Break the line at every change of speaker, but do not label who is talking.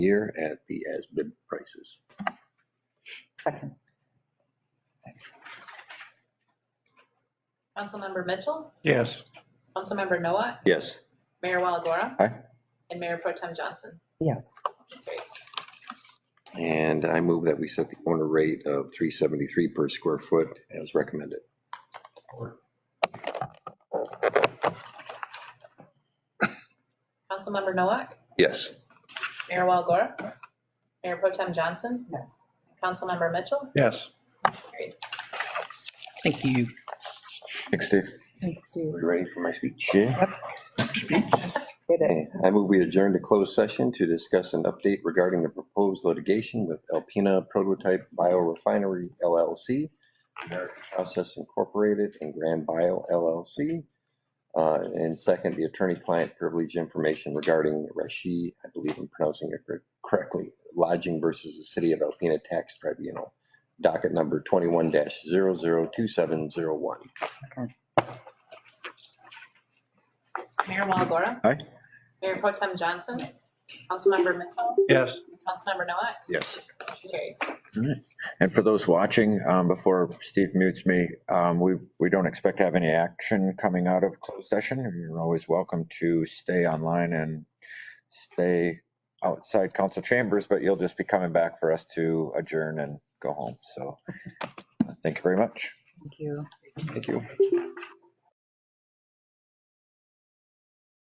year at the as-bid prices.
Second.
Councilmember Mitchell,
Yes.
Councilmember Noah,
Yes,
Mayor Walagora.
Aye.
And Mayor Pro Tem Johnson.
Yes,
and I move that we set the owner rate of 373 per square foot as recommended.
Councilmember Noah,
Yes,
Mayor Walagora. Mayor Pro Tem Johnson,
yes.
Councilmember Mitchell.
Yes.
Carried.
Thank you.
thanks, Steve.
Thanks, Steve.
Are you ready for my speech? Yeah.
Did it.
Okay. I move we adjourn to closed session to discuss an update regarding the proposed litigation with Alpina Prototype Biorefinery LLC, American Process Incorporated, and Grand Bio LLC. Uh, And second, the attorney-client privilege information regarding Rashi, I believe I'm pronouncing it cor- correctly, lodging versus the City of Alpena Tax Tribunal, docket number 21-002701.
Mayor Walagora.
Aye.
Mayor Pro Tem Johnson, Councilmember Mitchell,
Yes.
Councilmember Noah,
Yes.
motion carried.
And for those watching, um, before Steve mutes me, um, we, we don't expect to have any action coming out of closed session. You're always welcome to stay online and stay outside council chambers, but you'll just be coming back for us to adjourn and go home. So uh, thank you very much.
Thank you.
Thank you.